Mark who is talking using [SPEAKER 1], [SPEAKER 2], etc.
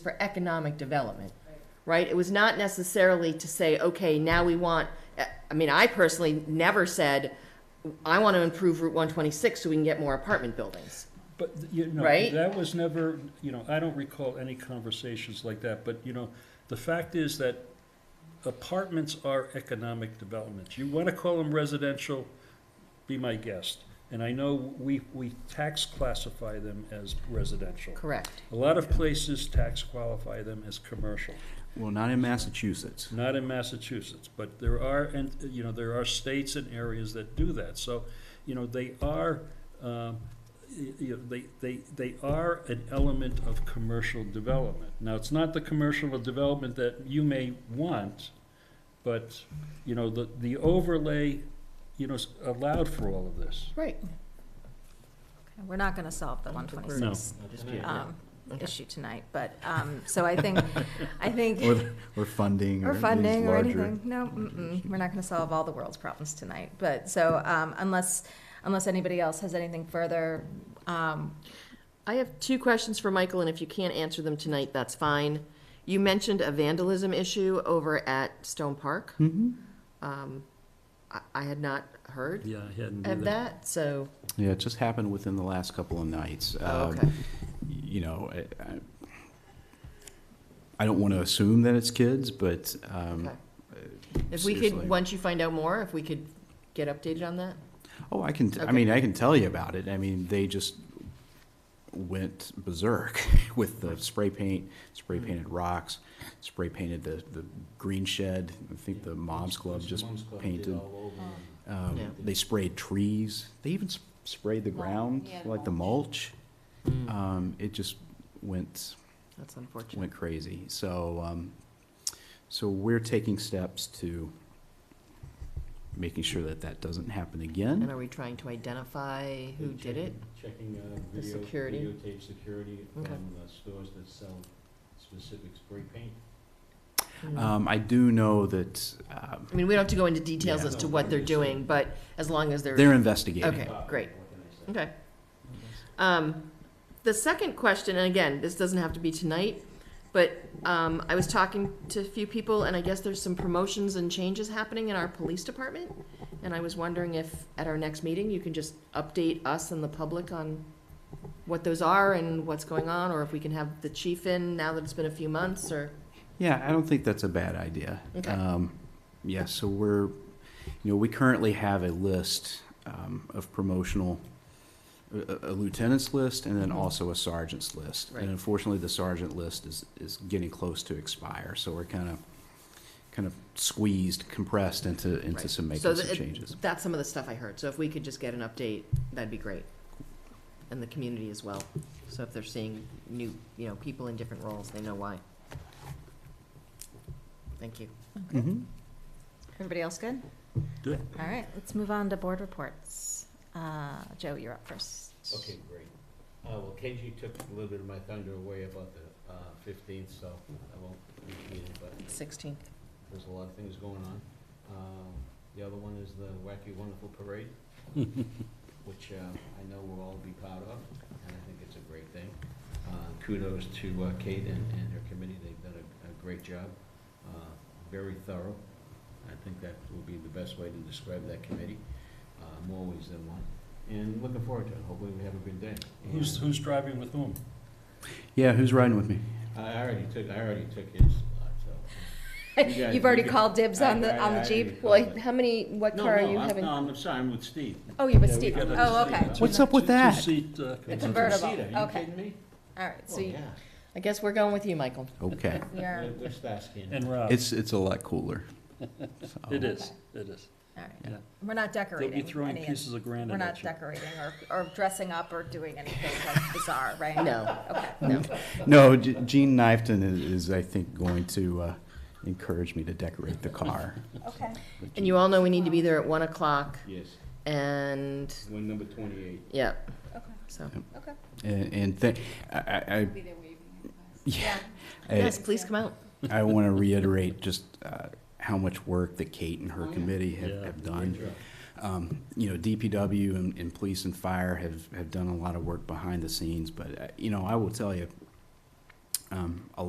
[SPEAKER 1] for economic development, right? It was not necessarily to say, okay, now we want, I mean, I personally never said, I want to improve Route 126 so we can get more apartment buildings.
[SPEAKER 2] But, you know,
[SPEAKER 1] Right?
[SPEAKER 2] that was never, you know, I don't recall any conversations like that, but, you know, the fact is that apartments are economic developments. You want to call them residential, be my guest. And I know we, we tax classify them as residential.
[SPEAKER 1] Correct.
[SPEAKER 2] A lot of places tax qualify them as commercial,
[SPEAKER 3] Well, not in Massachusetts.
[SPEAKER 2] not in Massachusetts, but there are, and, you know, there are states and areas that do that. So, you know, they are, um, y- you know, they, they, they are an element of commercial development. Now, it's not the commercial development that you may want, but, you know, the, the overlay, you know, s- allowed for all of this.
[SPEAKER 1] Right.
[SPEAKER 4] We're not going to solve the
[SPEAKER 2] No.
[SPEAKER 4] 126 um, issue tonight, but, um, so I think, I
[SPEAKER 3] Or,
[SPEAKER 4] think,
[SPEAKER 3] the- or funding.
[SPEAKER 4] or
[SPEAKER 3] these
[SPEAKER 4] funding or
[SPEAKER 3] larger-
[SPEAKER 4] anything. No, mm-mm, we're not going to solve all the world's problems tonight, but, so um, unless, unless anybody else has anything further, um,
[SPEAKER 1] I have two questions for Michael, and if you can't answer them tonight, that's fine. You mentioned a vandalism issue over at Stone Park.
[SPEAKER 3] Mhm.
[SPEAKER 1] Um, I, I had not heard
[SPEAKER 2] Yeah, I hadn't
[SPEAKER 1] of that, so,
[SPEAKER 3] Yeah, it just happened within the last couple of nights.
[SPEAKER 1] oh,
[SPEAKER 3] Um,
[SPEAKER 1] okay.
[SPEAKER 3] You know, I- I, I don't want to assume that it's kids, but, um,
[SPEAKER 1] Okay. If we could,
[SPEAKER 3] seriously.
[SPEAKER 1] once you find out more, if we could get updated on that?
[SPEAKER 3] oh, I can, I
[SPEAKER 1] Okay.
[SPEAKER 3] mean, I can tell you about it. I mean, they just went berserk with the spray paint, spray
[SPEAKER 4] Hmm.
[SPEAKER 3] painted rocks, spray painted the, the green shed. I think the Moms Club just painted. Um,
[SPEAKER 1] Yeah.
[SPEAKER 3] They sprayed trees. They even s- sprayed the
[SPEAKER 4] Mulch,
[SPEAKER 3] ground,
[SPEAKER 4] yeah, the
[SPEAKER 3] like the mulch. Um, it just went
[SPEAKER 1] That's unfortunate.
[SPEAKER 3] went crazy. So, um, so we're taking steps to making sure that that doesn't happen
[SPEAKER 1] And
[SPEAKER 3] again.
[SPEAKER 1] are we trying to identify who did it?
[SPEAKER 5] Checking uh,
[SPEAKER 1] The
[SPEAKER 5] video-
[SPEAKER 1] security?
[SPEAKER 5] videotape security from
[SPEAKER 1] Okay.
[SPEAKER 5] uh, stores that sell specific spray paint.
[SPEAKER 3] Um, I do know that um,
[SPEAKER 1] Hmm. I mean, we don't have to go into details
[SPEAKER 3] Yeah.
[SPEAKER 1] as to what they're doing, but as long as
[SPEAKER 3] they're investigating.
[SPEAKER 1] Okay,
[SPEAKER 5] Uh,
[SPEAKER 1] great.
[SPEAKER 5] what can I say?
[SPEAKER 1] Okay. Um, the second question, and again, this doesn't have to be tonight, but, um, I was talking to a few people, and I guess there's some promotions and changes happening in our police department. And I was wondering if, at our next meeting, you can just update us and the public on what those are and what's going on, or if we can have the chief in now that it's been a few months, or,
[SPEAKER 3] Yeah, I don't think that's a bad idea.
[SPEAKER 1] Okay.
[SPEAKER 3] Um, yeah, so we're, you know, we currently have a list um, of promotional, a a lieutenant's list and then
[SPEAKER 1] Mhm.
[SPEAKER 3] also a sergeant's list.
[SPEAKER 1] Right.
[SPEAKER 3] And unfortunately, the sergeant list is, is getting close to expire, so we're kind of, kind of squeezed, compressed into, into
[SPEAKER 1] Right.
[SPEAKER 3] some
[SPEAKER 1] So
[SPEAKER 3] making some
[SPEAKER 1] the-
[SPEAKER 3] changes.
[SPEAKER 1] that's some of the stuff I heard. So if we could just get an update, that'd be great. And the community as well. So if they're seeing new, you know, people in different roles, they know why. Thank you.
[SPEAKER 3] Mhm.
[SPEAKER 4] everybody else good?
[SPEAKER 2] Good.
[SPEAKER 4] All right, let's move on to board reports. Uh, Joe, you're up first.
[SPEAKER 5] Okay, great. Uh, well, KG took a little bit of my thunder away about the, uh, fifteenth, so I won't repeat it, but
[SPEAKER 1] Sixteenth.
[SPEAKER 5] there's a lot of things going on. Um, the other one is the Wacky Wonderful Parade, which, uh, I know we'll all be proud of, and I think it's a great thing. Uh, kudos to, uh, Kate and, and her committee, they've done a, a great job, uh, very thorough. I think that will be the best way to describe that committee, uh, more ways than one. And looking forward to it, hopefully we have a good day.
[SPEAKER 2] Who's,
[SPEAKER 5] And-
[SPEAKER 2] who's driving with whom?
[SPEAKER 3] Yeah, who's riding with me?
[SPEAKER 5] I already took, I already took his slot, so. You guys-
[SPEAKER 4] You've already
[SPEAKER 5] you-
[SPEAKER 4] called dibs on
[SPEAKER 5] I-
[SPEAKER 4] the,
[SPEAKER 5] I-
[SPEAKER 4] on the
[SPEAKER 5] I
[SPEAKER 4] Jeep?
[SPEAKER 5] already called it.
[SPEAKER 1] how many, what
[SPEAKER 5] No, no, I'm- No, I'm sorry, I'm with Steve.
[SPEAKER 4] Oh, you're with
[SPEAKER 5] Yeah, we
[SPEAKER 4] Steve.
[SPEAKER 5] got a-
[SPEAKER 4] Oh, okay.
[SPEAKER 3] What's up with that?
[SPEAKER 2] Two-seat, uh,
[SPEAKER 4] The
[SPEAKER 5] It's a
[SPEAKER 4] convertible,
[SPEAKER 5] two-seater, Are you
[SPEAKER 4] okay.
[SPEAKER 5] kidding me?
[SPEAKER 4] All right,
[SPEAKER 5] Oh,
[SPEAKER 4] so you-
[SPEAKER 5] yeah.
[SPEAKER 1] I guess we're going with you, Michael.
[SPEAKER 3] Okay.
[SPEAKER 4] we are,
[SPEAKER 5] We're- we're Starsky and-
[SPEAKER 2] and Rob.
[SPEAKER 3] It's, it's a lot cooler.
[SPEAKER 2] It
[SPEAKER 3] So-
[SPEAKER 2] is, it is.
[SPEAKER 4] all right.
[SPEAKER 2] Yeah.
[SPEAKER 4] We're not
[SPEAKER 2] They'll
[SPEAKER 4] decorating.
[SPEAKER 2] be throwing
[SPEAKER 4] any of-
[SPEAKER 2] pieces of granite
[SPEAKER 4] We're not
[SPEAKER 2] at you.
[SPEAKER 4] decorating or, or dressing up or doing anything like bizarre, right?
[SPEAKER 1] No,
[SPEAKER 4] Okay.
[SPEAKER 1] no.
[SPEAKER 3] No, G- Gene Knifton is, is, I think, going to uh, encourage me to decorate the car.
[SPEAKER 4] Okay.
[SPEAKER 1] And you all know we need to be there at one o'clock
[SPEAKER 5] Yes,
[SPEAKER 1] and,
[SPEAKER 5] one number twenty-eight.
[SPEAKER 1] yeah,
[SPEAKER 4] Okay.
[SPEAKER 1] so.
[SPEAKER 4] Okay.
[SPEAKER 3] And, and th- I, I, I- yeah, I,
[SPEAKER 1] Yes, please come out.
[SPEAKER 3] I want to reiterate just uh, how much work that Kate and her committee have,
[SPEAKER 2] Yeah.
[SPEAKER 3] have done. Um, you know, DPW and, and police and fire have, have done a lot of work behind the scenes, but, uh, you know, I will tell you, um, a